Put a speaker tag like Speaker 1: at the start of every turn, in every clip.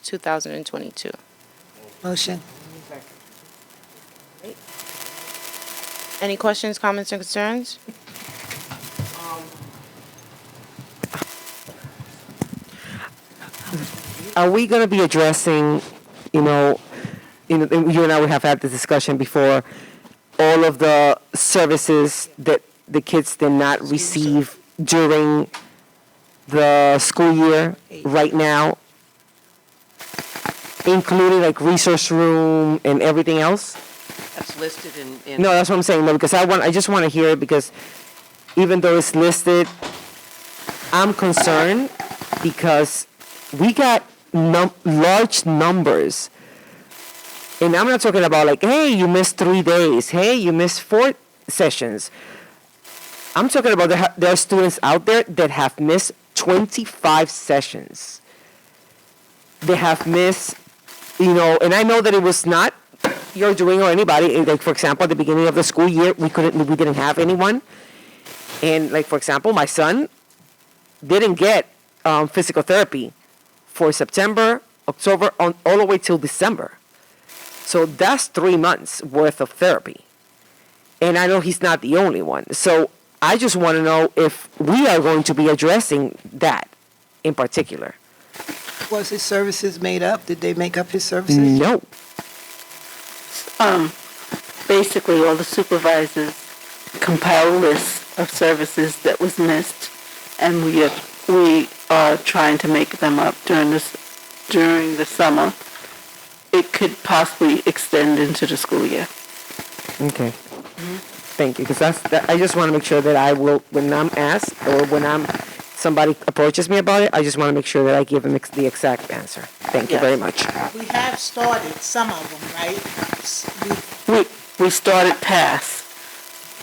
Speaker 1: 1st, 2022.
Speaker 2: Motion.
Speaker 1: Any questions, comments, or concerns?
Speaker 3: Are we going to be addressing, you know, you know, and you and I would have had this discussion before, all of the services that the kids did not receive during the school year right now, including like resource room and everything else?
Speaker 4: That's listed in, in.
Speaker 3: No, that's what I'm saying. No, because I want, I just want to hear it because even though it's listed, I'm concerned because we got num- large numbers. And I'm not talking about like, hey, you missed three days. Hey, you missed four sessions. I'm talking about there, ha- there are students out there that have missed 25 sessions. They have missed, you know, and I know that it was not you're doing or anybody eh, like for example at the beginning of the school year we couldn't we didn't have anyone and like for example my son didn't get um, physical therapy for september october on all the way till december so that's three months worth of therapy and i know he's not the only one so i just want to know if we are going to be addressing that in particular
Speaker 2: Was his services made up? Did they make up his
Speaker 5: Mm.
Speaker 2: services?
Speaker 3: no
Speaker 6: basically all the supervisors compile lists of services that was missed, and we are, we are trying to make them up during this, during the summer. It could possibly extend into the school year.
Speaker 3: Okay. Thank you, because that's, that, I just want to make sure that I will, when I'm asked, or when I'm, somebody approaches me about it, I just want to make sure that I give them ex- the exact answer. Thank you very much.
Speaker 5: We have started some of them, right? S- we-
Speaker 6: We, we started past.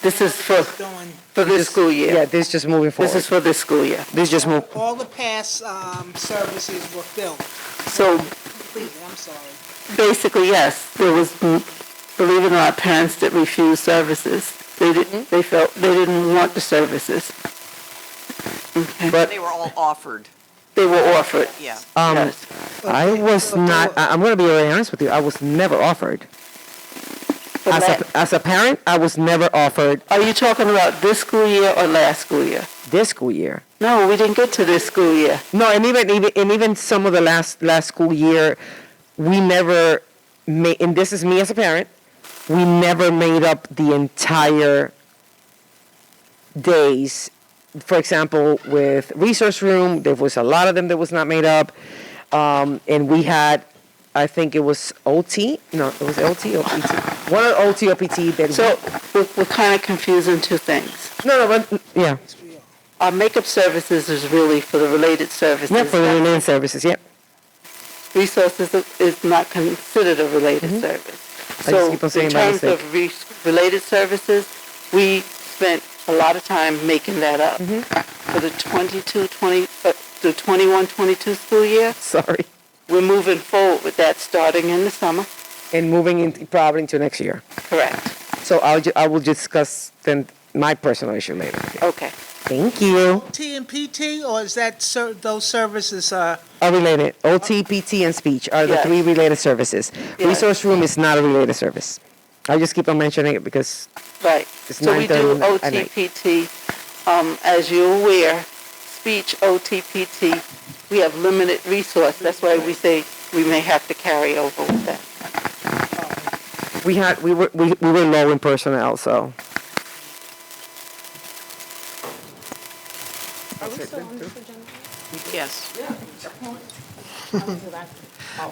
Speaker 6: This is for,
Speaker 5: Doing
Speaker 6: for this school
Speaker 3: Yeah,
Speaker 6: year.
Speaker 3: this is just moving
Speaker 6: This
Speaker 3: forward.
Speaker 6: is for this school year.
Speaker 3: This just move,
Speaker 5: all the past um, services were filled,
Speaker 6: So
Speaker 5: completed, I'm sorry.
Speaker 6: Basically, yes. There was, mm, believe it or not, parents that refused services. They didn't, they felt, they didn't want the services.
Speaker 4: They were all offered,
Speaker 6: They were offered.
Speaker 4: yeah.
Speaker 3: um,
Speaker 6: Yes.
Speaker 3: I was not, I, I'm going to be very honest with you, I was never offered.
Speaker 6: The
Speaker 3: As
Speaker 6: la-
Speaker 3: a, as a parent, I was never offered
Speaker 6: Are you talking about this school year or last school year? Mm-hmm.
Speaker 3: this school year.
Speaker 6: No, we didn't get to this school year.
Speaker 3: No, and even even and even some of the last last school year, we never made. And this is me as a parent. We never made up the entire days. For example, with resource room, there was a lot of them that was not made up, um, and we had. I think it was OT. No, it was LT or PT. One of OT or PT that.
Speaker 6: So we're, we're kind of confusing two things.
Speaker 3: no, no, but yeah,
Speaker 6: Our makeup services is really for the related services.
Speaker 3: yeah, for the related services. Yeah,
Speaker 6: resources is- is not considered a related service.
Speaker 3: I just
Speaker 6: So
Speaker 3: keep on saying
Speaker 6: in
Speaker 3: my
Speaker 6: terms
Speaker 3: mistake.
Speaker 6: of re- related services, we spent a lot of time making that up. For the 22, 20, uh, the 21, 22 school year,
Speaker 3: sorry.
Speaker 6: we're moving forward with that starting in the summer.
Speaker 3: And moving in, probably into next year.
Speaker 6: Correct.
Speaker 3: So I'll, ju- I will discuss then my personal issue later.
Speaker 6: Okay.
Speaker 3: Thank you.
Speaker 5: T and PT, or is that, ser- those services are,
Speaker 3: Are related. OT, PT, and speech are the
Speaker 6: Yes.
Speaker 3: three related services.
Speaker 6: Yes.
Speaker 3: Resource room is not a related service. I just keep on mentioning it because,
Speaker 6: Right.
Speaker 3: It's
Speaker 6: So we
Speaker 3: 9:30
Speaker 6: do
Speaker 3: at night.
Speaker 6: OTPT. Um, as you're aware, speech OTPT, we have limited resource. That's why we say we may have to carry over with that.
Speaker 3: we had, we were, we, we were low in personnel, so.
Speaker 4: Yes.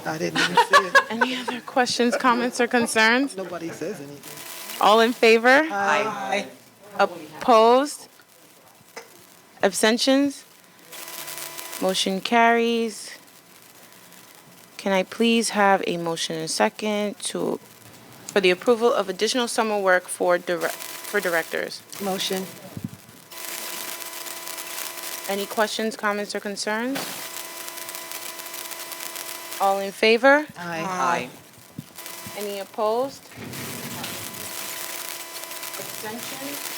Speaker 2: I didn't even see it.
Speaker 1: Any other questions, comments, or concerns?
Speaker 2: Nobody says anything.
Speaker 1: All in favor?
Speaker 5: I,
Speaker 1: Opposed? Abstentions? Motion carries. Can I please have a motion and second to, for the approval of additional summer work for direct, for directors?
Speaker 2: Motion.
Speaker 1: Any questions, comments, or concerns? All in favor?
Speaker 2: Aye.
Speaker 4: Aye.
Speaker 1: Any opposed? Abstentions?